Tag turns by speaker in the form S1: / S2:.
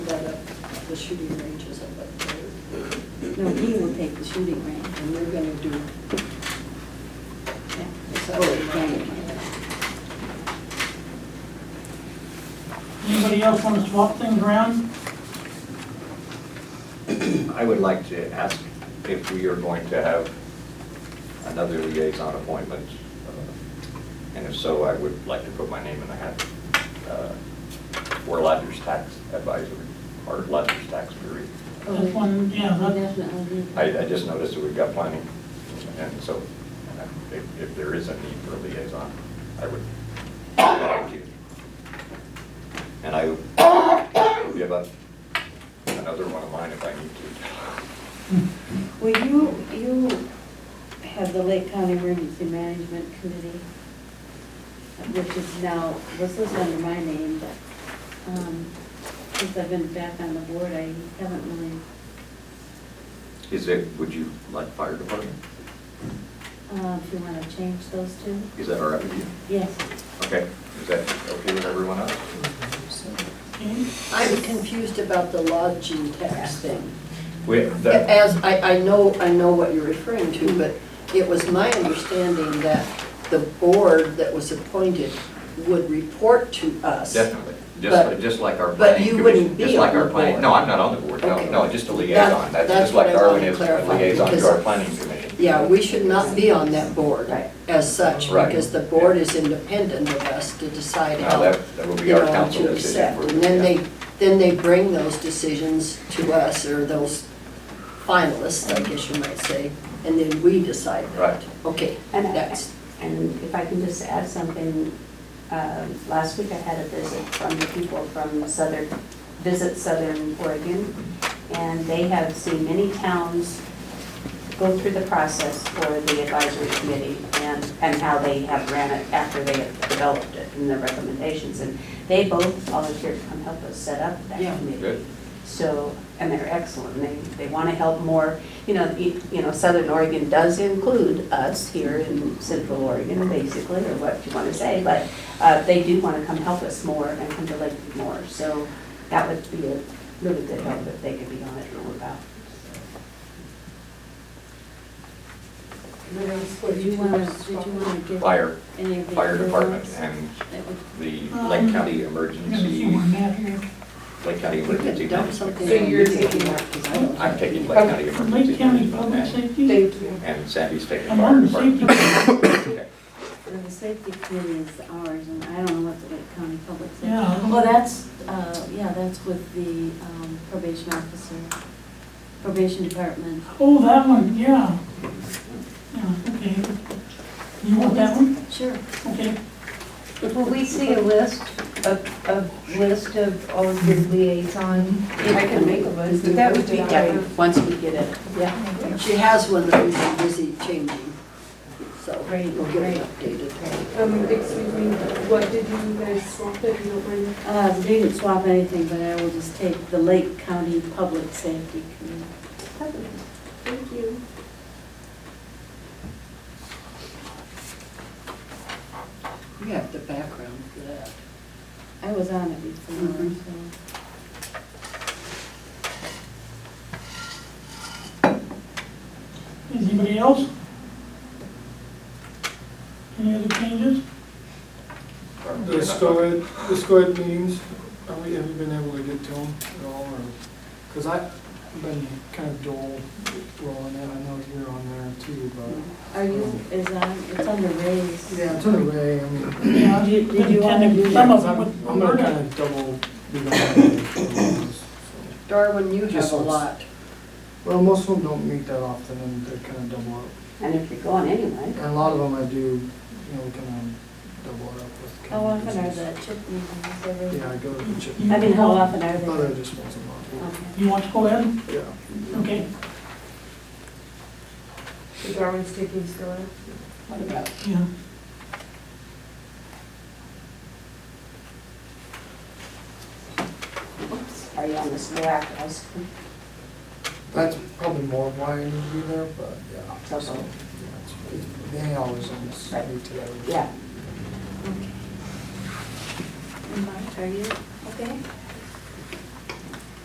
S1: shooting range is up at third. No, he will take the shooting range, and we're gonna do. yeah, it's up to Brandon.
S2: Anybody else want to swap things around?
S3: I would like to ask if we are going to have another liaison appointment. uh, And if so, I would like to put my name in the hat uh, for Lodgers Tax Advisory, or Lodgers Tax Bureau.
S2: This one, yeah,
S1: We'll
S2: that's-
S1: Oh, Definitely. do that.
S3: I, I just noticed that we've got planning, and so uh, if, if there is a need for a liaison, I would like you. And I will give up another one of mine if I need to.
S1: Well, you, you have the Lake County Emergency Management Committee, which is now, this is under my name, but, um, since I've been back on the board, I haven't really,
S3: Is it, would you like fire department?
S1: uh, if you wanna change those two?
S3: Is that all right with you?
S1: Yes.
S3: Okay, is that okay with everyone else?
S2: okay.
S4: I'm confused about the lodging tax thing.
S3: With the,
S4: As, I, I know, I know what you're referring to, but it was my understanding that the board that was appointed would report to us.
S3: definitely, just,
S4: But-
S3: like- just like our
S4: but
S3: planning
S4: you
S3: commission.
S4: wouldn't be
S3: just like
S4: on
S3: our
S4: the
S3: planning-
S4: board.
S3: No, I'm not on the board, no,
S4: Okay.
S3: no, just a
S4: That-
S3: liaison, that's
S4: that's
S3: just like
S4: what I wanted
S3: Darwin
S4: to
S3: is a
S4: clarify,
S3: liaison to
S4: because-
S3: our planning commission.
S4: Yeah, we should not be on that board
S1: Right.
S4: as such,
S3: Right.
S4: because the board is independent of us to decide
S3: No,
S4: how,
S3: that- that will be
S4: you
S3: our
S4: know,
S3: council
S4: to
S3: decision
S4: accept.
S3: for-
S4: And then
S3: yeah.
S4: they, then they bring those decisions to us, or those finalists, I guess you might say, and then we decide that.
S3: Mm-hmm. Right.
S4: Okay,
S5: And,
S4: that's,
S5: and if I can just add something, um, last week I had a visit from the people from Southern, Visit Southern Oregon, and they have seen many towns go through the process for the advisory committee and, and how they have ran it after they have developed it and their recommendations. And they both volunteered to come help us set up that
S4: Yeah.
S5: committee.
S3: Good.
S5: So, and they're excellent, they, they want to help more, you know, you you know, Southern Oregon does include us here in Central Oregon, basically, or what you want to say, but uh, they do want to come help us more and come to Lake more, so that would be a really good help if they could be on it and all about.
S1: Did you wanna, did you wanna give
S3: Fire,
S1: any of the?
S3: fire
S1: other
S3: department
S1: ones?
S3: and
S1: That would-
S3: the
S2: Um,
S3: Lake County
S2: I'm gonna see
S3: Emergency,
S2: where Matt here.
S3: Lake County
S4: we
S3: Emergency
S4: could dump
S3: Management.
S4: something.
S6: So
S4: on
S6: you're
S4: me if you
S6: taking-
S4: want, 'cause I don't
S3: I'm
S4: think-
S3: taking Lake County
S2: From Lake
S3: Emergency
S2: County
S3: Management.
S2: Public
S3: and-
S2: Safety,
S6: you.
S3: And Sandy's taking
S2: I'm
S3: fire
S2: on the safety.
S3: department. Okay.
S1: Well, The safety committee is ours, and I don't know what the Lake County Public Safety.
S2: Yeah.
S1: Well, that's, uh, yeah, that's with the um, probation officer, probation department.
S2: Oh, that one, yeah. Yeah, okay. You want that one?
S1: Sure.
S2: Okay.
S7: Will we see a list, a, a list of all of your liaison?
S4: I can make a
S7: list. That would be
S5: Yeah,
S7: great.
S5: once we get it.
S4: Yeah, she has one that we've been busy changing, so
S7: Great,
S4: we'll get it
S7: great.
S4: updated.
S6: Um, excuse me, what did you guys swap if you don't mind?
S1: Uh, We didn't swap anything, but I will just take the Lake County Public Safety Committee.
S6: Thank you.
S4: You have the background for that.
S1: I was on it before,
S4: Mhm.
S1: so.
S2: Is anybody else? Any other changes?
S8: The SCOED, the SCOED meetings, are we, have you been able to get to them at all, or? Because I've been kind of dull rolling in, I know you're on there too, but.
S1: Are you, is on, it's under raise.
S8: Yeah, it's in a way, I mean.
S2: Yeah.
S1: Did you- did you wanna do that?
S2: Some of them
S8: I'm
S2: with
S8: I'm gonna kind
S2: Roberta.
S8: of double be on there. so.
S4: Darwin, you
S8: Just
S4: have a
S8: once.
S4: lot.
S8: Well, most of them don't meet that often, and they're kind of double up.
S5: And if you're going anyway.
S8: And a lot of them I do, you know, kind of double it up with.
S1: How often are
S8: they?
S1: the chip meetings every?
S8: Yeah, I go to the chip,
S2: You-
S1: I mean, how often are
S8: oh, they're
S1: they?
S8: just once a month,
S1: Okay.
S2: You want to go ahead?
S8: yeah.
S2: Okay.
S6: The Darwin's taking still.
S2: Yeah.
S5: Oops, Are you on this go after us?
S8: That's probably more of why I need to be there, but yeah.
S5: It's also-
S8: Yeah, it's- They always almost
S5: Right.
S8: meet together.
S5: Yeah.
S1: And Mark, are you okay?